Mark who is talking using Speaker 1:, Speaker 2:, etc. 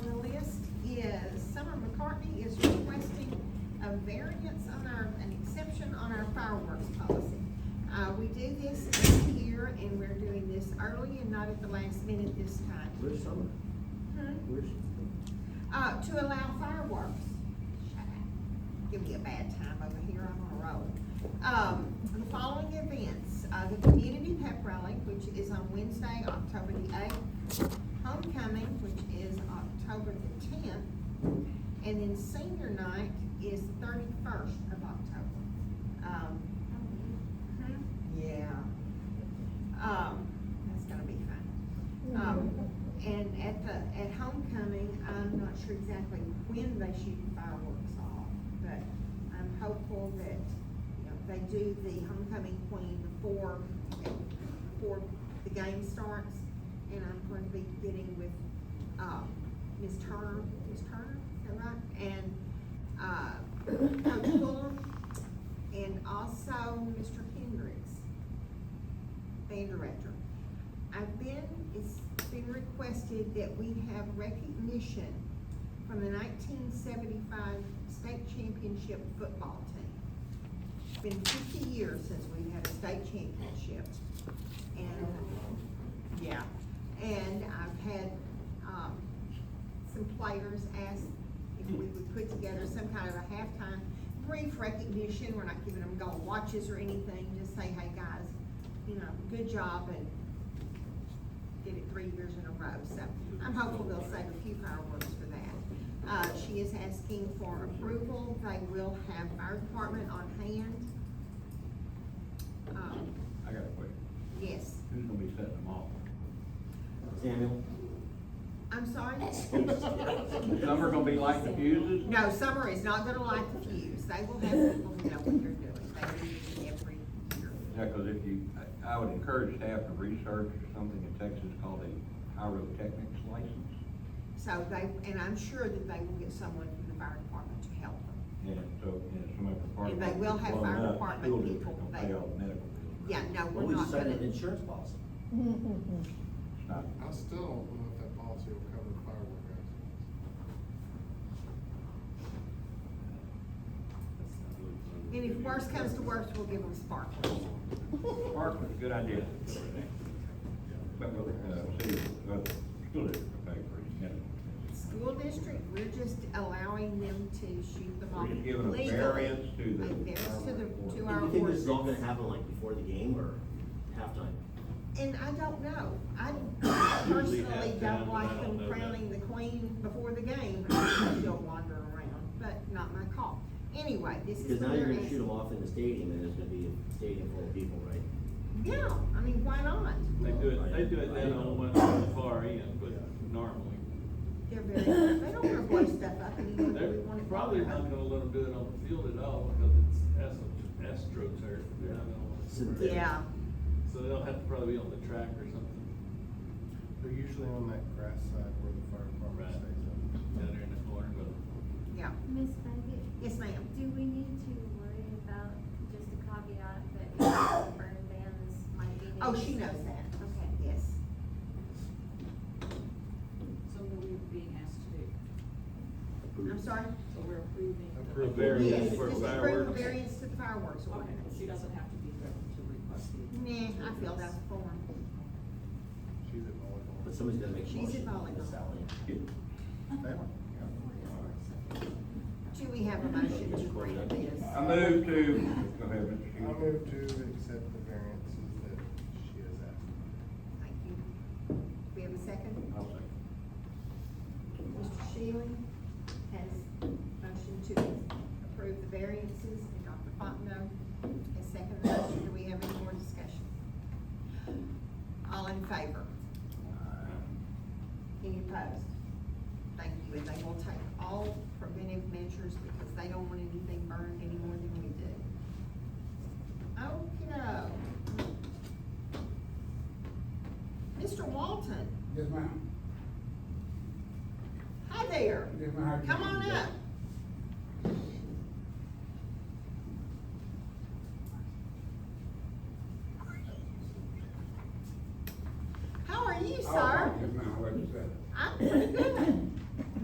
Speaker 1: Uh, at the last minute this time.
Speaker 2: Where's Summer?
Speaker 1: Hmm?
Speaker 2: Where's?
Speaker 1: Uh, to allow fireworks. Shut up. Give me a bad time over here, I'm on a roll. Um, the following events, uh, the community pep rally, which is on Wednesday, October the eighth. Homecoming, which is October the tenth. And then senior night is thirty-first of October. Um, mhm, yeah. Um, that's gonna be fun. Um, and at the, at homecoming, I'm not sure exactly when they shoot fireworks off, but I'm hopeful that, you know, they do the homecoming queen before, before the game starts. And I'm going to be getting with, um, Ms. Turner, Ms. Turner, is that right? And, uh, Coach Fuller, and also Mr. Hendricks band director. I've been, it's been requested that we have recognition from the nineteen seventy-five state championship football team. It's been fifty years since we've had a state championship. And, yeah, and I've had, um, some players ask if we would put together some kind of a halftime brief recognition, we're not giving them gold watches or anything, just say, hey, guys, you know, good job, and did it three years in a row, so I'm hopeful they'll save a few fireworks for that. Uh, she is asking for approval, they will have fire department on hand. Um,
Speaker 3: I got a question.
Speaker 1: yes,
Speaker 3: Who's gonna be setting them off?
Speaker 2: Samuel?
Speaker 1: I'm sorry?
Speaker 3: Some are gonna be like the fuses?
Speaker 1: No, summer is not gonna light the fuse, they will have people who know what they're doing, they do this every year.
Speaker 3: Yeah, cause if you, I, I would encourage staff to research something in Texas called a pyrotechnics license.
Speaker 1: So they, and I'm sure that they will get someone from the fire department to help them.
Speaker 3: And so, and if somebody from fire
Speaker 1: And
Speaker 3: department.
Speaker 1: they will have
Speaker 3: blown
Speaker 1: fire
Speaker 3: up,
Speaker 1: department
Speaker 3: school district
Speaker 1: people,
Speaker 3: gonna
Speaker 1: they-
Speaker 3: pay all the medical bills.
Speaker 1: Yeah, no,
Speaker 2: Well,
Speaker 1: we're
Speaker 2: we
Speaker 1: not
Speaker 2: just signed an
Speaker 1: gonna,
Speaker 2: insurance policy.
Speaker 3: It's not-
Speaker 4: I still don't know if that policy will cover firework accidents.
Speaker 1: and if worse comes to worse, we'll give them sparklers.
Speaker 3: Sparklers, good idea. But, we'll, uh, see, uh, school district will pay for it, yeah.
Speaker 1: School district, we're just allowing them to shoot them off
Speaker 3: We're just giving a
Speaker 1: legally.
Speaker 3: variance to the
Speaker 1: A variance to the, to
Speaker 3: firework
Speaker 1: our
Speaker 2: Do you think this is all gonna
Speaker 1: ordinance.
Speaker 2: happen like before the game or halftime?
Speaker 1: And I don't know, I
Speaker 5: Usually
Speaker 1: personally
Speaker 5: halftime,
Speaker 1: don't
Speaker 5: but
Speaker 1: like
Speaker 5: I don't
Speaker 1: them
Speaker 5: know that.
Speaker 1: crowning the queen before the game, I still wander around, but not my call. Anyway, this is.
Speaker 2: Because now
Speaker 1: what
Speaker 2: you're
Speaker 1: they're
Speaker 2: gonna shoot them
Speaker 1: asking.
Speaker 2: off in the stadium and there's gonna be a stadium full of people, right?
Speaker 1: Yeah, I mean, why not?
Speaker 5: They do it, they do it down on one on the far end, but normally.
Speaker 1: They're very, they don't wanna blow stuff up and you know, we
Speaker 5: They're
Speaker 1: want it.
Speaker 5: probably not gonna let them do it on the field at all because it's astro- astroturf. They're not gonna want to.
Speaker 1: Yeah,
Speaker 5: So they'll have to probably be on the track or something
Speaker 4: They're usually on that grass side where the fire department
Speaker 5: Right.
Speaker 4: stays up.
Speaker 5: down there in the corner, but
Speaker 1: yeah,
Speaker 6: Miss Beckett?
Speaker 1: yes, ma'am.
Speaker 6: Do we need to worry about just a caveat that burn bans might be?
Speaker 1: Oh, she
Speaker 6: needed?
Speaker 1: knows that.
Speaker 6: Okay.
Speaker 1: Yes.
Speaker 7: Something we were being asked to do,
Speaker 1: I'm sorry?
Speaker 7: so we're approving. the-
Speaker 5: Approve. Variance
Speaker 1: Yes,
Speaker 5: for
Speaker 1: just approve the
Speaker 5: fireworks.
Speaker 1: variance to the fireworks
Speaker 7: Okay,
Speaker 1: ordinance.
Speaker 7: she doesn't have to be there to request the.
Speaker 1: Nah, I filled out the form.
Speaker 4: She's at volleyball.
Speaker 2: But somebody's gonna make a
Speaker 1: She's
Speaker 2: motion,
Speaker 1: involved.
Speaker 2: Miss Sally.
Speaker 4: That one,
Speaker 1: Do we have a motion to grant this?
Speaker 3: I move to, go ahead, Mr.
Speaker 4: yeah. I
Speaker 3: Hughes.
Speaker 4: move to accept the variances that she has asked.
Speaker 1: Thank you. We have a second?
Speaker 3: I'll second.
Speaker 1: Mr. Shealy has motion to approve the variances, and Dr. Fontenot has seconded the motion. Do we have any more discussion? All in favor? Any opposed? Thank you, and they will take all preventive measures because they don't want anything burned any more than we do. Okay. Mr. Walton,
Speaker 8: Yes, ma'am.
Speaker 1: hi there.
Speaker 8: Yes, ma'am.
Speaker 1: Come on up.